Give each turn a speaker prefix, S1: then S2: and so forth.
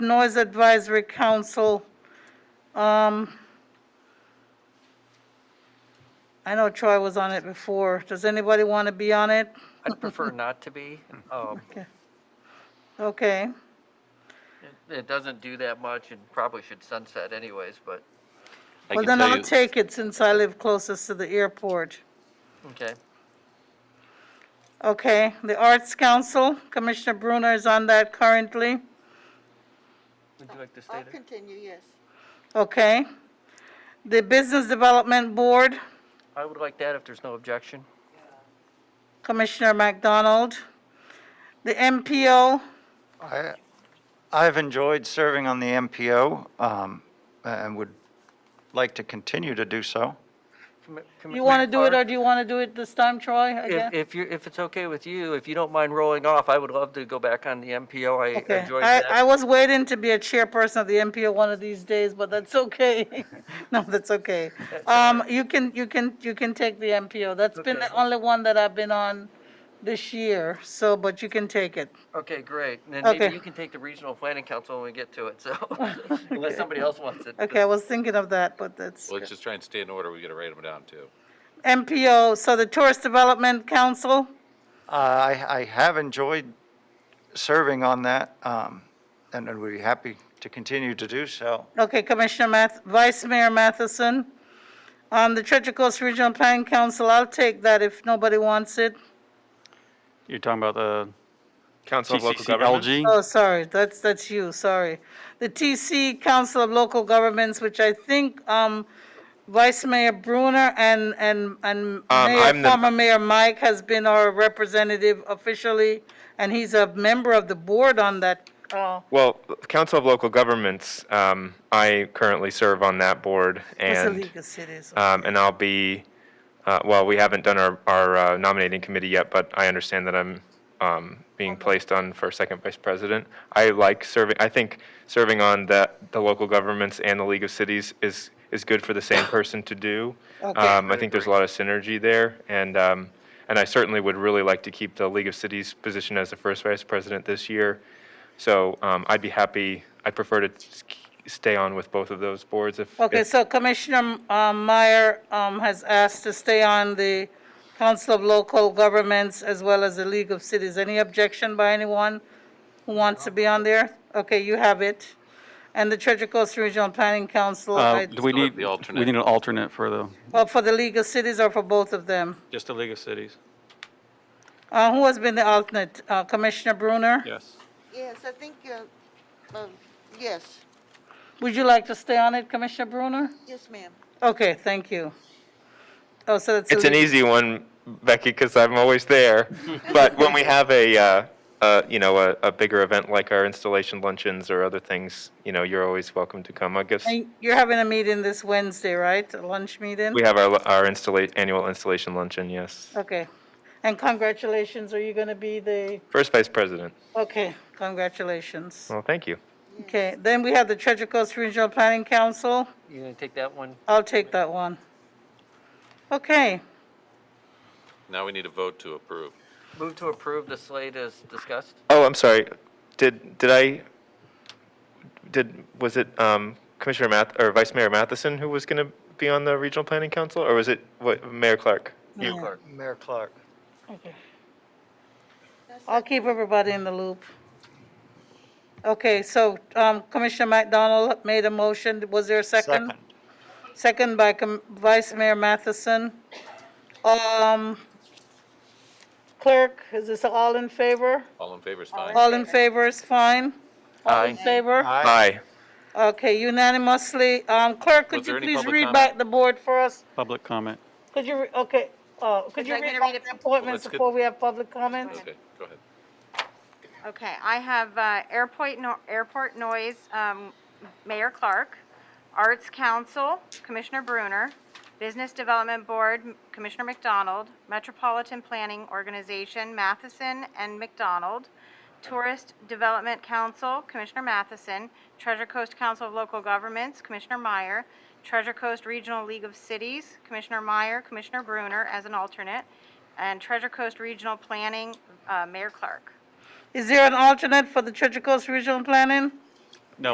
S1: Noise Advisory Council. Um, I know Troy was on it before. Does anybody want to be on it?
S2: I'd prefer not to be. Um,
S1: Okay,
S2: it- It doesn't do that much and probably should sunset anyways, but,
S3: I
S1: well then
S3: can tell
S1: I'll
S3: you-
S1: take it since I live closest to the airport.
S2: okay.
S1: Okay, the Arts Council, Commissioner Bruner is on that currently.
S2: Would you like to stay
S4: I'll
S2: there?
S4: continue, yes.
S1: Okay. The Business Development Board,
S2: I would like that if there's no objection.
S1: Commissioner McDonald. The MPO,
S5: I, I've enjoyed serving on the MPO, um, and would like to continue to do so.
S2: Commi-
S1: you want to
S2: Commissioner
S1: do it or
S2: Clark,
S1: do you want to do it this time, Troy, again?
S2: If, if you, if it's okay with you, if you don't mind rolling off, I would love to go back on the MPO. I
S1: Okay,
S2: enjoyed
S1: I, I
S2: that.
S1: was waiting to be a chairperson of the MPO one of these days, but that's okay. No, that's okay. Um, you can, you can, you can take the MPO. That's been the
S2: Okay.
S1: only one that I've been on this year, so, but you can take it.
S2: Okay, great. And then
S1: Okay.
S2: maybe you can take the Regional Planning Council when we get to it, so, unless somebody else wants it.
S1: Okay, I was thinking of that, but that's,
S3: Well, Let's just try and stay in order. We gotta write them down too.
S1: MPO, so the Tourist Development Council,
S5: Uh, I, I have enjoyed serving on that, um, and and would be happy to continue to do so.
S1: okay, Commissioner Math, Vice Mayor Matheson. On the Treasure Coast Regional Planning Council, I'll take that if nobody wants it.
S6: You're talking about the
S7: Council of Local Governments.
S6: TCCLG?
S1: Oh, sorry, that's, that's you, sorry. The TC Council of Local Governments, which I think, um, Vice Mayor Bruner and, and, and Mayor,
S7: Um, I'm the-
S1: former Mayor Mike has been our representative officially, and he's a member of the board on that, uh,
S7: Well, Council of Local Governments, um, I currently serve on that board and,
S1: Basilica Cities.
S7: um, and I'll be, uh, well, we haven't done our, our uh, nominating committee yet, but I understand that I'm, um, being placed on for second vice president. I like serving, I think serving on the, the local governments and the League of Cities is, is good for the same person to do. Um, I think there's a lot of synergy there and, um, and I certainly would really like to keep the League of Cities position as the first vice president this year. So um, I'd be happy, I prefer to s- stay on with both of those boards if.
S1: Okay,
S7: if-
S1: so Commissioner um, Meyer um, has asked to stay on the Council of Local Governments as well as the League of Cities. Any objection by anyone who wants to be on there? Okay, you have it. And the Treasure Coast Regional Planning Council,
S3: Oh,
S6: Uh,
S1: I-
S6: Do we
S3: Still have
S6: need,
S3: the alternate.
S6: we need an alternate for the,
S1: well, for the League of Cities or for both of them?
S6: just the League of Cities?
S1: Uh, Who has been the alternate? Uh, Commissioner Bruner?
S6: Yes.
S4: Yes, I think, uh, um, yes,
S1: Would you like to stay on it, Commissioner Bruner?
S4: yes, ma'am.
S1: Okay, thank you. Oh, so that's. the
S7: It's an e-
S1: League-
S7: easy one, Becky, because I'm always there. But when we have a, uh, uh, you know, a, a bigger event like our installation luncheons or other things, you know, you're always welcome to come. I guess
S1: And You're having a meeting this Wednesday, right? A lunch meeting?
S7: we have our, our installa- annual installation luncheon, yes.
S1: Okay. And congratulations, are you going to be the,
S7: First Vice President.
S1: okay, congratulations.
S7: Well, thank you.
S1: Okay, then we have the Treasure Coast Regional Planning Council.
S2: You gonna take that one?
S1: I'll take that one. Okay,
S3: Now we need a vote to approve.
S2: Move to approve the slate as discussed?
S7: Oh, I'm sorry. Did, did I, did, was it um, Commissioner Math, or Vice Mayor Matheson who was going to be on the Regional Planning Council? Or was it, what, Mayor Clark?
S2: You, Clark.
S5: Mayor Clark.
S1: I'll keep everybody in the loop. Okay, so um, Commissioner McDonald made a motion. Was there a second?
S5: Second.
S1: Second by Com- Vice Mayor Matheson. Um, Clerk, is this all in favor?
S3: All in favor is fine.
S1: All in favor is fine? All in
S2: Aye.
S1: favor?
S7: Aye.
S1: Okay, unanimously. Um, Clerk, could
S3: Was
S1: you
S3: there any
S1: please
S3: public
S1: read
S3: comment?
S1: back the board for us?
S6: Public comment.
S1: Could you, re- okay, uh, could you
S8: like me
S1: read
S8: to
S1: back
S8: read it?
S1: the appointments
S3: Let's get-
S1: before we have public comments?
S3: Okay, go ahead.
S8: Okay, I have uh, Airport, no- Airport Noise, um, Mayor Clark, Arts Council, Commissioner Bruner, Business Development Board, Commissioner McDonald, Metropolitan Planning Organization, Matheson and McDonald, Tourist Development Council, Commissioner Matheson, Treasure Coast Council of Local Governments, Commissioner Meyer, Treasure Coast Regional League of Cities, Commissioner Meyer, Commissioner Bruner as an alternate, and Treasure Coast Regional Planning, uh, Mayor Clark.
S1: Is there an alternate for the Treasure Coast Regional Planning?